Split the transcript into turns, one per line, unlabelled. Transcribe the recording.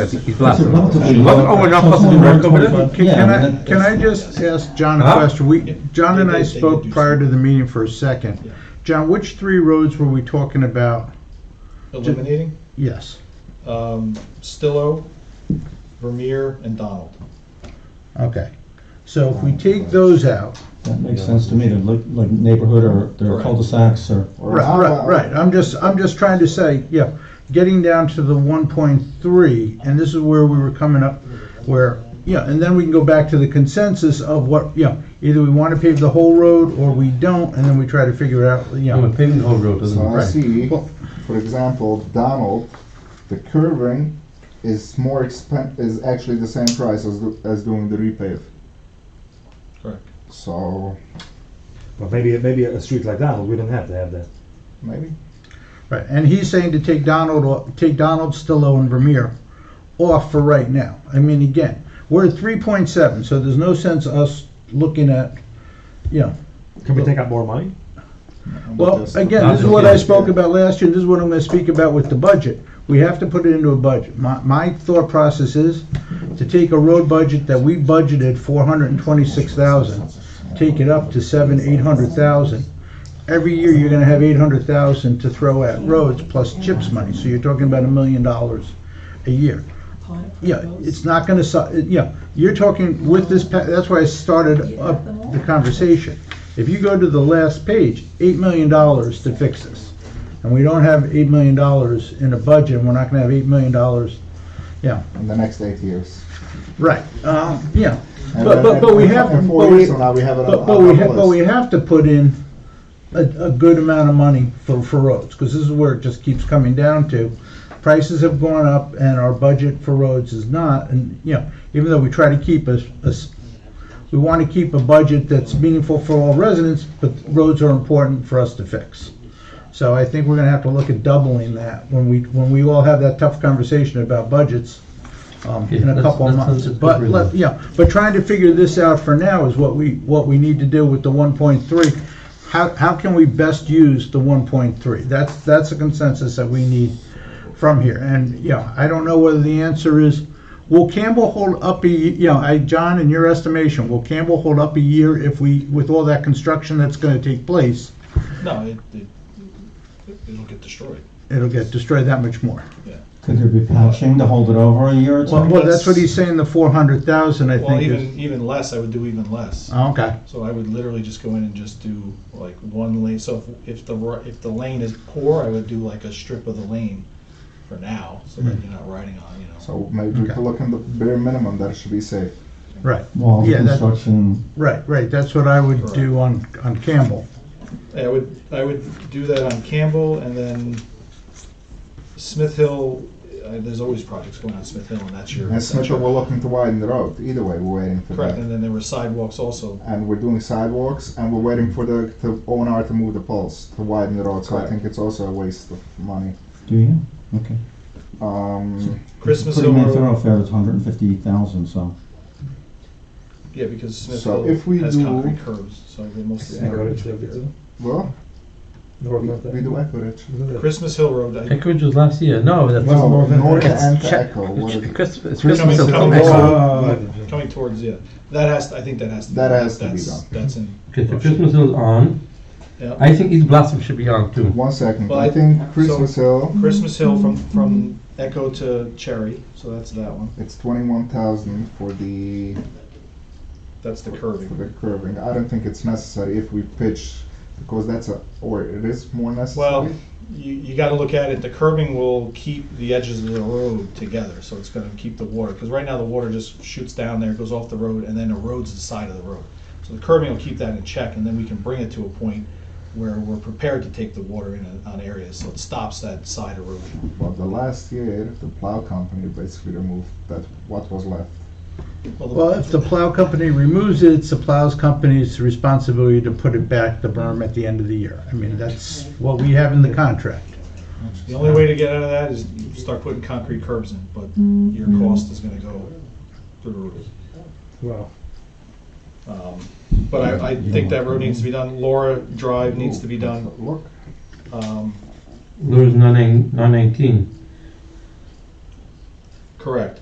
I think he's left.
It's a relatively-
Wasn't- Oh, we're not supposed to do rec over there?
Can
Yeah,
can
I mean,
I,
that-
can I just ask John a
Huh?
question? We, John and I
They- they
spoke
do
prior to
something.
the meeting for a second.
Yeah.
John, which three roads were we talking about?
Eliminating,
Yes,
um, Stillo, Vermeer, and Donald.
okay. So if we take those out,
That makes sense to me, they're like, like neighborhood or they're
Right.
cul-de-sacs or.
right, right, right, I'm just, I'm just trying to say, yeah, getting down to the one point three, and this is where we were coming up, where, yeah, and then we can go back to the consensus of what, yeah, either we want to pave the whole road or we don't, and then we try to figure out, you
Yeah,
know.
we're paving the whole road, doesn't
So
it?
I
Right.
see,
Well-
for example, Donald, the curving is more expen, is actually the same price as, do- as doing the repave.
Correct.
So,
Well, maybe, maybe a street like that, but we don't have to have that.
maybe?
Right, and he's saying to take Donald, off- take Donald, Stillo, and Vermeer off for right now. I mean, again, we're at three point seven, so there's no sense us looking at, you know.
Can we take out more money?
I'm
Well,
just-
again, this is what I spoke about last year, and this is what I'm gonna speak about with the budget. We have to put it into a budget. My, my thought process is to take a road budget that we budgeted four hundred and twenty-six thousand, take it up to seven, eight hundred thousand. Every year, you're gonna have eight hundred thousand to throw at roads plus CHIPS money, so you're talking about a million dollars a year. Yeah, it's not gonna, su- it- yeah, you're talking with this, pa- that's why I started up the conversation. If you go to the last page, eight million dollars to fix this. And we don't have eight million dollars in a budget, and we're not gonna have eight million dollars,
In the next eight years.
right, um, yeah.
And
But,
then
but,
in-
but we
in-
have,
In
but
four
we-
years from now, we have it on
but,
on
but we,
our
ha- but we
list.
have to put in a, a good amount of money for, for roads, because this is where it just keeps coming down to. Prices have gone up and our budget for roads is not, and, you know, even though we try to keep us, us, we want to keep a budget that's meaningful for all residents, but roads are important for us to fix. So I think we're gonna have to look at doubling that when we, when we all have that tough conversation about budgets, um, in
Yeah,
a
that's-
couple of
that
months.
sounds
But,
appropriate.
let- yeah, but trying to figure this out for now is what we, what we need to do with the one point three. How, how can we best use the one point three? That's, that's a consensus that we need from here. And, you know, I don't know whether the answer is, will Campbell hold up a, ye- you know, I, John, in your estimation, will Campbell hold up a year if we, with all that construction that's gonna take place,
No, it, it, it'll get destroyed.
it'll get destroyed that much more?
Could there be patching to hold it over a year or
Well,
two?
well, that's what he's saying, the four hundred thousand, I
Well,
think is.
even, even less, I would do even less.
Oh, Okay,
So I would literally just go in and just do like one lane, so if, if the, ri- if the lane is poor, I would do like a strip of the lane for now, so that you're not riding on, you know.
So maybe we
Okay.
could look in the bare minimum that it should be safe.
right,
Wall
Yeah, that-
construction,
right, right, that's what I would do on, on Campbell.
I would, I would do that on Campbell and then Smith Hill, uh, there's always projects going on Smith Hill and that's your.
And Smithville, we're looking to widen the road. Either way, we're waiting for
Correct,
that.
and then there were sidewalks also.
And we're doing sidewalks and we're waiting for the, the O and R to move the poles, to widen the road. So I
Correct.
think it's also a waste of money.
do you? Okay.
Um,
Christmas
Pretty
Hill
main
Road,
thoroughfare is hundred and fifty thousand, so.
yeah, because Smith
So
Hill
if we
has
do-
concrete curbs, so they mostly.
Yeah, go well, we, we do Anchorage.
Christmas Hill Road, I,
Anchorage was last year, no, that's.
No, North
It's
and
Chi-
Echo. What is
It's
it?
Coming-
Christmas, Christmas is
coming
coming.
back.
Uh,
coming towards, yeah, that has, I think that has. to be
That
done.
has to be
That's-
done.
That's in.
Okay, so Christmas is on.
Yeah.
I think East Blossom should be on too.
One second.
Well,
I
I-
think Christmas Hill,
Christmas Hill from, from Echo to Cherry, so that's that one,
it's 21,000 for the
that's the
for
curving.
the curving. I don't think it's necessary if we pitch because that's a or it is more necessary.
Well, you, you gotta look at it, the curbing will keep the edges of the road together, so it's gonna keep the water, because right now the water just shoots down there, goes off the road, and then erodes the side of the road. So the curbing will keep that in check, and then we can bring it to a point where we're prepared to take the water in on areas, so it stops that side erosion.
But the last year, the plow company basically removed that what was left.
Well, if the plow company removes it, it's the plow's company's responsibility to put it back, the berm, at the end of the year. I mean, that's what we have in the contract.
The only way to get out of that is you start putting concrete curbs in, but your
Mm-hmm.
cost is gonna go through the roof.
Wow.
Um, But I, I think that road needs to be done, Laura Drive needs to be done.
Look,
Um,
Lures nine nine nineteen.
Correct.